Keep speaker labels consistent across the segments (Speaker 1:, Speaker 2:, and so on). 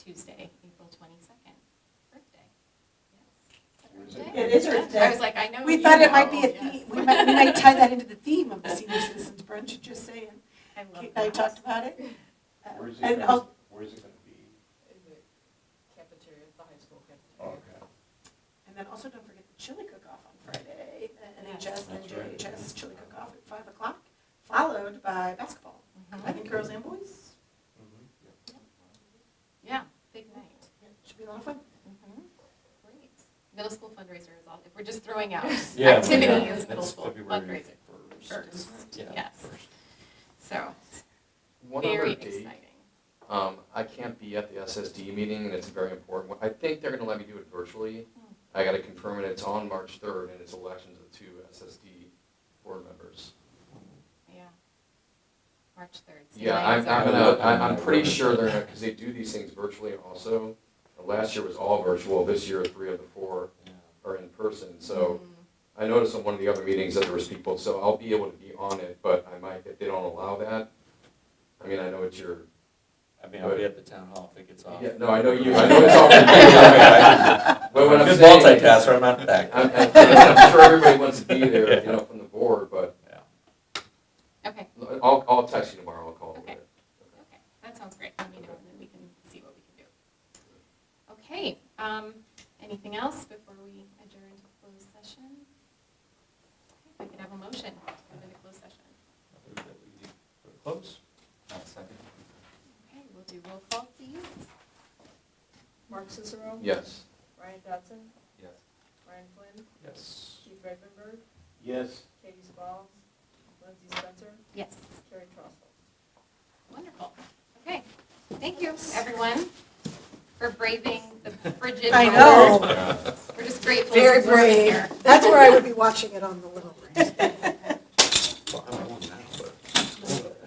Speaker 1: Tuesday, April twenty-second, birthday.
Speaker 2: Is
Speaker 1: Yes. Is
Speaker 2: it?
Speaker 1: that
Speaker 3: It is Earth Day.
Speaker 1: I was like, I know.
Speaker 3: We
Speaker 1: you
Speaker 3: thought it
Speaker 1: know.
Speaker 3: might be a
Speaker 1: Yes.
Speaker 3: theme, we might, we might tie that into the theme of the senior citizens brunch, just saying.
Speaker 1: I love
Speaker 3: I
Speaker 1: that.
Speaker 3: talked about it. Uh,
Speaker 2: Where is it
Speaker 3: And
Speaker 2: gonna,
Speaker 3: I'll,
Speaker 2: where is it gonna be?
Speaker 4: in the cafeteria, the high school
Speaker 5: Oh,
Speaker 4: cafeteria.
Speaker 2: Okay.
Speaker 3: and then also don't forget the chili cook-off on Friday, the
Speaker 1: Yes.
Speaker 3: NHS and
Speaker 2: That's right.
Speaker 3: JHS chili cook-off at five o'clock, followed by basketball.
Speaker 1: Mhm.
Speaker 3: I think girls and boys,
Speaker 2: Mhm. Yeah.
Speaker 1: Yeah, big night.
Speaker 3: should be a lot of fun.
Speaker 1: Mhm. Great. Middle school fundraiser is all, if we're just throwing out
Speaker 2: Yeah, well,
Speaker 1: activity
Speaker 2: yeah,
Speaker 1: is middle
Speaker 2: that's
Speaker 1: school
Speaker 2: February
Speaker 1: fundraiser first.
Speaker 6: Yeah,
Speaker 1: Yes,
Speaker 6: first.
Speaker 1: so,
Speaker 6: One
Speaker 1: very
Speaker 6: other date,
Speaker 1: exciting.
Speaker 6: um, I can't be at the SSD meeting and it's a very important one. I think they're gonna let me do it virtually.
Speaker 1: Hmm.
Speaker 6: I gotta confirm it, it's on March third and it's elections of two SSD board members.
Speaker 1: Yeah. March third.
Speaker 6: Yeah, I'm, I'm
Speaker 2: out.
Speaker 6: gonna, I'm, I'm pretty sure they're gonna, cause they do these things virtually also. Last year was all virtual, this year three of the four are in person, so
Speaker 1: Mm-hmm.
Speaker 6: I noticed on one of the other meetings that there was people, so I'll be able to be on it, but I might, if they don't allow that, I mean, I know it's your,
Speaker 5: I mean, I'll be at the town hall if it gets off.
Speaker 6: yeah, no, I know you, I know it's all for you. right? But what I'm
Speaker 5: Good
Speaker 6: saying is-
Speaker 5: multitasker, I'm not that
Speaker 6: I'm,
Speaker 5: good.
Speaker 6: I'm- I'm sure everybody wants to be there, you know, from the board, but
Speaker 1: Okay,
Speaker 6: I'll, I'll text you tomorrow, I'll call you later.
Speaker 1: okay, that sounds great, let me know, and then we can see what we can do. Okay, um, anything else before we adjourn to closed session? Okay, We can have a motion for the closed session.
Speaker 5: Close?
Speaker 1: Okay, we'll do roll call, please.
Speaker 4: Mark Cicero,
Speaker 6: Yes.
Speaker 4: Ryan Dotson,
Speaker 5: Yes.
Speaker 4: Ryan Flynn,
Speaker 5: Yes.
Speaker 4: Keith Redenberg,
Speaker 2: Yes.
Speaker 4: Katie Spaws, Lindsey Spencer,
Speaker 1: Yes.
Speaker 4: Carrie Trostle.
Speaker 1: Wonderful, okay, thank you, everyone, for braving the frigid.
Speaker 3: I
Speaker 1: weather.
Speaker 3: know,
Speaker 1: We're just grateful.
Speaker 3: very
Speaker 1: to be
Speaker 3: brave.
Speaker 1: here.
Speaker 3: That's where I would be watching it on the little ring.
Speaker 5: Well, I want that, but.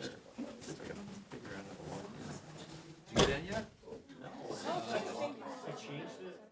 Speaker 5: Do you get in yet? No.